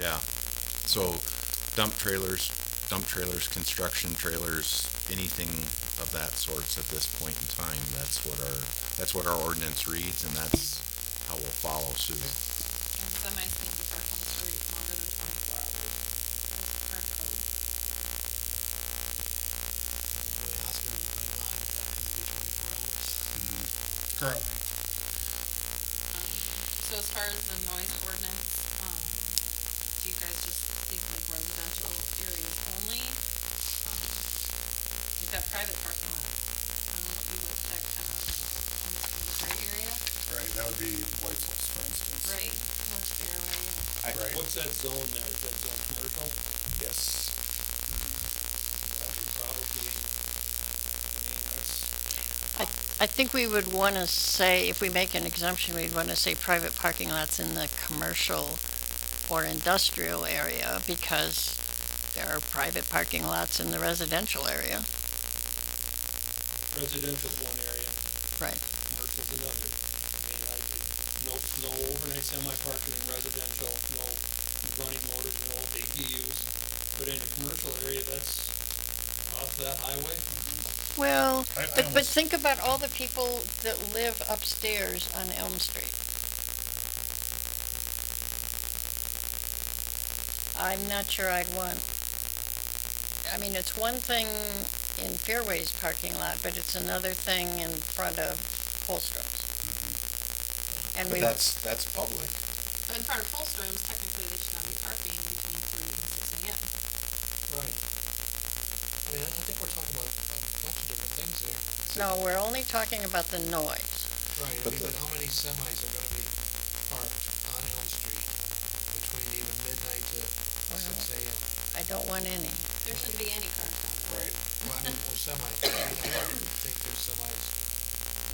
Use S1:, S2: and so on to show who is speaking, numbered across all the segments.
S1: yeah. So dump trailers, dump trailers, construction trailers, anything of that sorts at this point in time, that's what our, that's what our ordinance reads and that's how we'll follow suit.
S2: And some I think these are on the street longer than twenty-four hours. That's our code.
S3: Currently,
S2: Um, So as far as the noise ordinance, um, do you guys just think like residential areas only? Um, You've got private parking lots, I don't know if you would that kind of, on the gray area,
S3: right, that would be Whitehall's, for instance.
S2: right, what's fair, right?
S3: I- Right.
S4: What's that zone there? Is that zone commercial?
S3: Yes.
S4: That would probably, I mean, that's,
S5: I think we would want to say, if we make an exemption, we'd want to say private parking lots in the commercial or industrial area because there are private parking lots in the residential area.
S4: residential's one area,
S5: Right.
S4: commercial's another. I mean, I could, no, no overnight semi parking in residential, no running motors, no APUs. But in a commercial area, that's off that highway,
S5: Well,
S3: I- I
S5: but, but
S3: almost-
S5: think about all the people that live upstairs on Elm Street. I'm not sure I'd want, I mean, it's one thing in Fairway's parking lot, but it's another thing in front of Holstrom's. And we,
S6: But that's, that's public.
S2: But in front of Holstrom's, technically they should not be parking between three and six AM.
S7: Right. I mean, I I think we're talking about a bunch of different things here.
S5: no, we're only talking about the noise.
S7: Right, I
S6: But
S7: mean,
S6: the-
S7: but how many semis are gonna be parked on Elm Street between even midnight to six AM?
S5: I don't want any.
S2: There shouldn't be any cars down there.
S3: Right.
S7: Well, I mean, or semi, I don't think there's semis,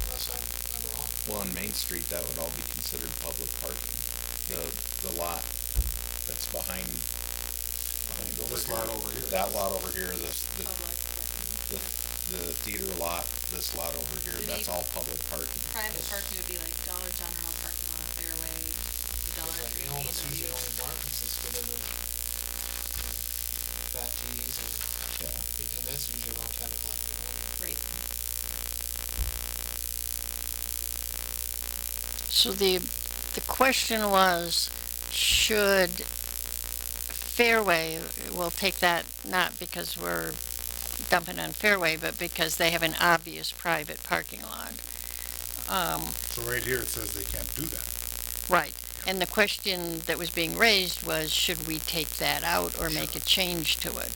S7: unless I'm, I'm wrong.
S6: Well, on Main Street, that would all be considered public parking. The, the lot that's behind, behind over
S3: This
S6: here.
S3: lot over here.
S6: That lot over here, this, the,
S2: Public parking.
S6: the, the theater lot, this lot over here,
S2: Do
S6: that's
S2: they-
S6: all public parking.
S2: Private parking would be like Dollar General parking lot, Fairway, Dollar
S7: Like, You
S2: Tree.
S7: know, it's usually only Martins that's gonna do, uh, back tees and,
S6: Yeah.
S7: and that's usually around ten o'clock in the morning.
S2: Right.
S5: So the, the question was, should Fairway, we'll take that not because we're dumping on Fairway, but because they have an obvious private parking lot. Um,
S3: So right here, it says they can't do that.
S5: Right. And the question that was being raised was, should we take that out or make a change to it?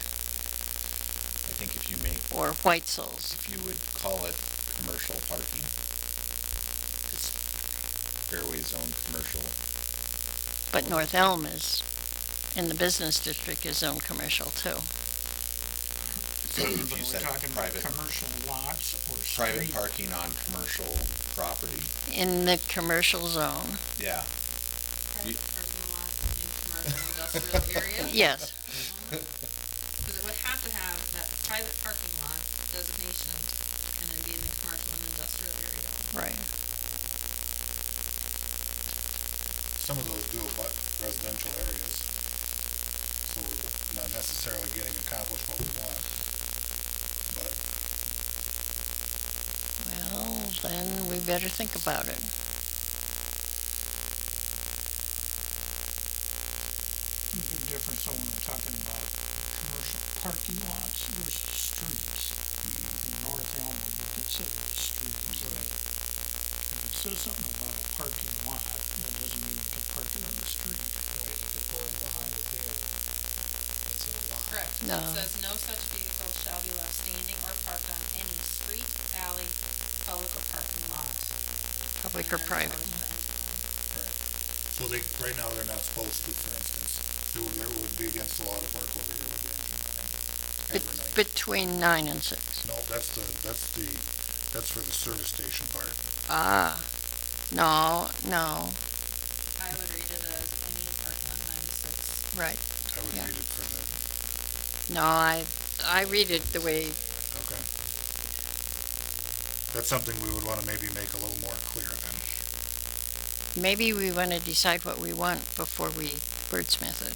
S6: I think if you make,
S5: Or Whitesell's?
S6: if you would call it commercial parking, because Fairway Zone Commercial,
S5: But North Elm is, in the business district, is own commercial too.
S6: so if you said private,
S8: commercial lots or
S6: private parking on commercial property,
S5: In the commercial zone,
S6: yeah.
S2: Private parking lot in commercial industrial areas.
S5: yes.
S2: Because it would have to have that private parking lot designation and then be in the commercial and industrial area.
S5: Right.
S3: Some of those do abut residential areas. So we're not necessarily getting accomplished what we want. But
S5: Well, then we better think about it.
S8: Big difference when we're talking about commercial parking lots versus streets.
S3: Mm-hmm.
S8: And North Elm would be considered a street, so if it says something about a parking lot, that doesn't mean you can park it on the street.
S7: Right, if it's going behind the theater, that's a lot.
S2: Correct.
S5: No.
S2: It says no such vehicle shall be left standing or parked on any street, alley, public or parking lot.
S5: Public
S2: And
S5: or
S2: there's
S5: private?
S2: always that.
S3: So they, right now, they're not supposed to, for instance. It would, it would be against the law to park over here with the engine running every
S5: Bet-
S3: night.
S5: Between nine and six.
S3: No, that's the, that's the, that's for the service station part.
S5: Ah, no, no,
S2: I would read it as any parking lot nine to six.
S5: right.
S3: I would
S5: Yeah.
S3: read it for the,
S5: No, I, I read it the way,
S3: okay. That's something we would wanna maybe make a little more clear then.
S5: maybe we want to decide what we want before we wordsmith it.